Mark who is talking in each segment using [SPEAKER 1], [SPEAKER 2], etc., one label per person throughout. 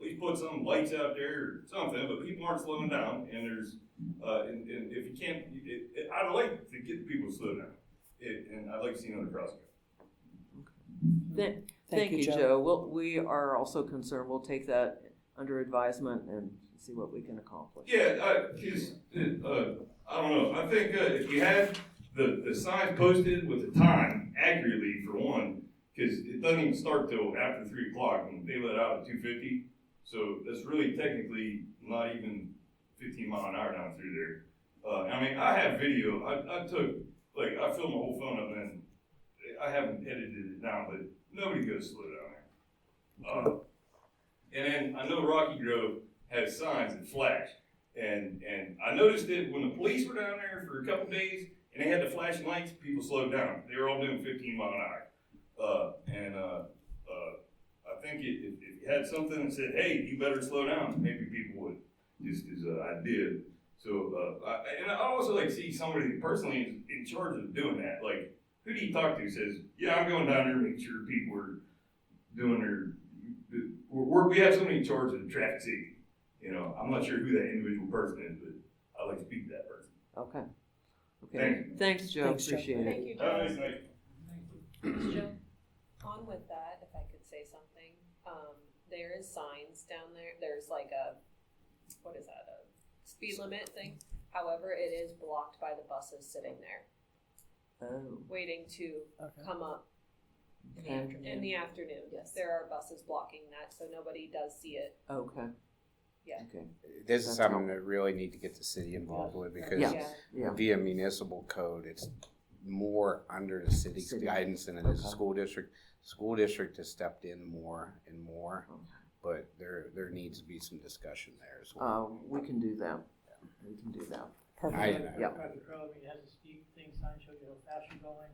[SPEAKER 1] could put some lights out there or something, but people aren't slowing down, and there's, uh, and, and if you can't, it, it, I'd like to get people to slow down. It, and I'd like to see another crosswalk.
[SPEAKER 2] Thank you, Joe. We'll, we are also concerned, we'll take that under advisement and see what we can accomplish.
[SPEAKER 1] Yeah, I, cause, uh, uh, I don't know, I think, uh, if we had the, the sign posted with the time accurately for one, cause it doesn't even start till after three o'clock, and they let out at two fifty, so that's really technically not even fifteen mile an hour down through there. Uh, I mean, I have video, I, I took, like, I filmed my whole phone up and I haven't edited it down, but nobody goes slow down there. Uh, And then I know Rocky Grove has signs that flash, and, and I noticed it when the police were down there for a couple days, and they had the flashing lights, people slowed down. They were all doing fifteen mile an hour. Uh, and, uh, uh, I think it, if, if you had something that said, hey, you better slow down, maybe people would, just as an idea. So, uh, I, and I also like to see somebody personally in, in charge of doing that, like, who do you talk to who says, yeah, I'm going down there to make sure people are doing their, we're, we're, we have somebody in charge of the traffic safety. You know, I'm not sure who that individual person is, but I like to speak to that person.
[SPEAKER 2] Okay. Okay,
[SPEAKER 1] Thank
[SPEAKER 2] thanks, Joe,
[SPEAKER 3] Thanks, Joe.
[SPEAKER 2] appreciate it.
[SPEAKER 4] Thank you,
[SPEAKER 1] Have a nice
[SPEAKER 4] Joe.
[SPEAKER 1] night.
[SPEAKER 4] Joe, On with that, if I could say something, um, there is signs down there, there's like a, what is that, a speed limit thing? However, it is blocked by the buses sitting there,
[SPEAKER 2] Oh,
[SPEAKER 4] waiting to come up
[SPEAKER 2] okay,
[SPEAKER 4] in the afternoon. Yes. There are buses blocking that, so nobody does see it.
[SPEAKER 2] okay.
[SPEAKER 4] Yeah.
[SPEAKER 2] Okay,
[SPEAKER 5] This
[SPEAKER 2] That's
[SPEAKER 5] is something that really need to get the city involved with because
[SPEAKER 2] Yeah. yeah,
[SPEAKER 5] via municipal code, it's more under the city's
[SPEAKER 2] City.
[SPEAKER 5] guidance than it is
[SPEAKER 2] Okay.
[SPEAKER 5] the school district. School district has stepped in more and more,
[SPEAKER 2] Okay.
[SPEAKER 5] but there, there needs to be some discussion there as well.
[SPEAKER 2] uh, we can do that. We can do that.
[SPEAKER 5] I,
[SPEAKER 3] Perfect.
[SPEAKER 5] I-
[SPEAKER 2] Yeah.
[SPEAKER 6] Dr. Crowe, I mean, has a speed thing sign show you how fast you're going,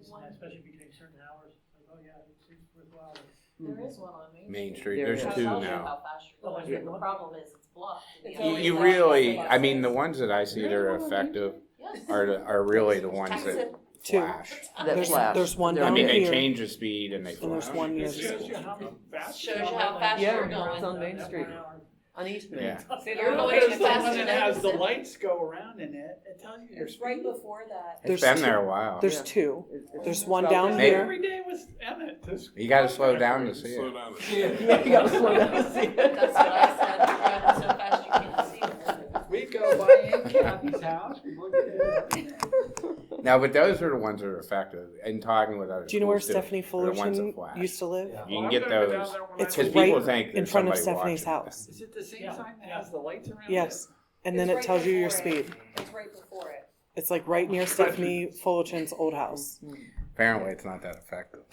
[SPEAKER 6] isn't that especially between certain hours, like, oh yeah, it's it's worthwhile.
[SPEAKER 2] Hmm.
[SPEAKER 7] There is one on
[SPEAKER 4] Uh,
[SPEAKER 7] Main.
[SPEAKER 5] Main Street,
[SPEAKER 2] There
[SPEAKER 5] there's
[SPEAKER 2] is.
[SPEAKER 7] That
[SPEAKER 5] two
[SPEAKER 7] tells you
[SPEAKER 5] now.
[SPEAKER 7] How fast you're
[SPEAKER 6] Oh,
[SPEAKER 7] going.
[SPEAKER 6] yeah.
[SPEAKER 7] The problem is it's blocked. and
[SPEAKER 4] It's
[SPEAKER 7] the
[SPEAKER 5] You,
[SPEAKER 4] only
[SPEAKER 7] other
[SPEAKER 5] you
[SPEAKER 7] side
[SPEAKER 5] really,
[SPEAKER 7] is the
[SPEAKER 5] I mean, the
[SPEAKER 7] buses.
[SPEAKER 5] ones that I see that are effective
[SPEAKER 7] Yes.
[SPEAKER 5] are, the- are really the ones
[SPEAKER 7] Texas.
[SPEAKER 5] that
[SPEAKER 3] Two.
[SPEAKER 5] flash.
[SPEAKER 2] That
[SPEAKER 3] There's-
[SPEAKER 2] flash.
[SPEAKER 3] there's one
[SPEAKER 2] There
[SPEAKER 5] I
[SPEAKER 3] down
[SPEAKER 2] we
[SPEAKER 5] mean,
[SPEAKER 2] go.
[SPEAKER 5] they
[SPEAKER 3] here.
[SPEAKER 5] change the speed and they
[SPEAKER 3] And
[SPEAKER 5] flash.
[SPEAKER 3] there's one near
[SPEAKER 8] It shows you
[SPEAKER 3] school.
[SPEAKER 8] how fast.
[SPEAKER 7] Shows you how fast
[SPEAKER 2] Yeah,
[SPEAKER 7] you're going.
[SPEAKER 2] it's on Main Street, on East Main.
[SPEAKER 5] Yeah.
[SPEAKER 4] See,
[SPEAKER 7] You're
[SPEAKER 4] there-
[SPEAKER 7] going
[SPEAKER 8] There's
[SPEAKER 7] as
[SPEAKER 8] the
[SPEAKER 7] fast
[SPEAKER 8] one
[SPEAKER 7] as
[SPEAKER 8] that
[SPEAKER 7] I
[SPEAKER 8] has the
[SPEAKER 7] can.
[SPEAKER 8] lights go around in it, it tells you your
[SPEAKER 4] It's right
[SPEAKER 8] speed.
[SPEAKER 4] before that.
[SPEAKER 5] It's
[SPEAKER 3] There's
[SPEAKER 5] been
[SPEAKER 3] two.
[SPEAKER 5] there a while.
[SPEAKER 3] There's
[SPEAKER 2] Yeah.
[SPEAKER 3] two.
[SPEAKER 2] It- it's
[SPEAKER 3] There's one
[SPEAKER 2] about
[SPEAKER 3] down
[SPEAKER 2] this
[SPEAKER 5] Maybe.
[SPEAKER 3] here.
[SPEAKER 8] Every day was Emmett. this-
[SPEAKER 5] You gotta slow down to see
[SPEAKER 8] Slow
[SPEAKER 5] it.
[SPEAKER 8] down to see
[SPEAKER 2] big.
[SPEAKER 8] it.
[SPEAKER 2] Yeah, you gotta slow down to see
[SPEAKER 7] That's what
[SPEAKER 2] it.
[SPEAKER 7] I said. You're driving so fast you can't see. it.
[SPEAKER 8] We go by Aunt Kathy's house, we look at it.
[SPEAKER 5] No, but those are the ones that are effective. And talking with other
[SPEAKER 3] Do you know where
[SPEAKER 5] schools, too.
[SPEAKER 3] Stephanie
[SPEAKER 5] They're the ones
[SPEAKER 3] Fullerton
[SPEAKER 5] that flash.
[SPEAKER 3] used to live?
[SPEAKER 5] You can
[SPEAKER 8] Well,
[SPEAKER 5] get
[SPEAKER 8] I've never been
[SPEAKER 5] those.
[SPEAKER 8] down there when
[SPEAKER 3] It's
[SPEAKER 8] I
[SPEAKER 3] right
[SPEAKER 5] Because
[SPEAKER 8] was-
[SPEAKER 5] people think
[SPEAKER 3] in
[SPEAKER 5] there's
[SPEAKER 3] front of
[SPEAKER 5] somebody watching
[SPEAKER 3] Stephanie's house.
[SPEAKER 8] Is it the same
[SPEAKER 6] Yeah,
[SPEAKER 8] sign that
[SPEAKER 6] yeah.
[SPEAKER 8] has the lights around it?
[SPEAKER 3] Yes. And then
[SPEAKER 4] It's
[SPEAKER 3] it
[SPEAKER 4] right
[SPEAKER 3] tells you your
[SPEAKER 4] before it.
[SPEAKER 3] speed.
[SPEAKER 4] It's right before it.
[SPEAKER 3] It's like right near Stephanie Fullerton's old house.
[SPEAKER 5] Apparently, it's not that effective.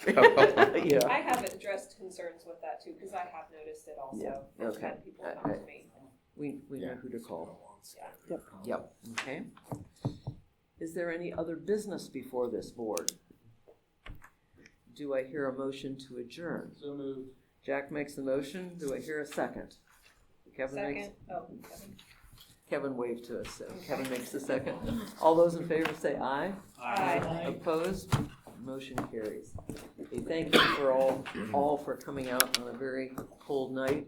[SPEAKER 2] Yeah,
[SPEAKER 4] I have addressed concerns with that too, because I have noticed it also.
[SPEAKER 2] Yeah,
[SPEAKER 4] I've
[SPEAKER 2] okay.
[SPEAKER 4] had People come to me.
[SPEAKER 2] we, we know
[SPEAKER 5] Yeah.
[SPEAKER 2] who to call.
[SPEAKER 3] Yep.
[SPEAKER 2] Yep, okay. Is there any other business before this board? Do I hear a motion to adjourn? So moved. Jack makes the motion, do I hear a second? Kevin makes,
[SPEAKER 4] Second, oh, Kevin.
[SPEAKER 2] Kevin waved to us, so Kevin makes the second. All those in favor say aye.
[SPEAKER 4] Aye.
[SPEAKER 2] Opposed, motion carries. Okay, Thank you for all, all for coming out on a very cold night.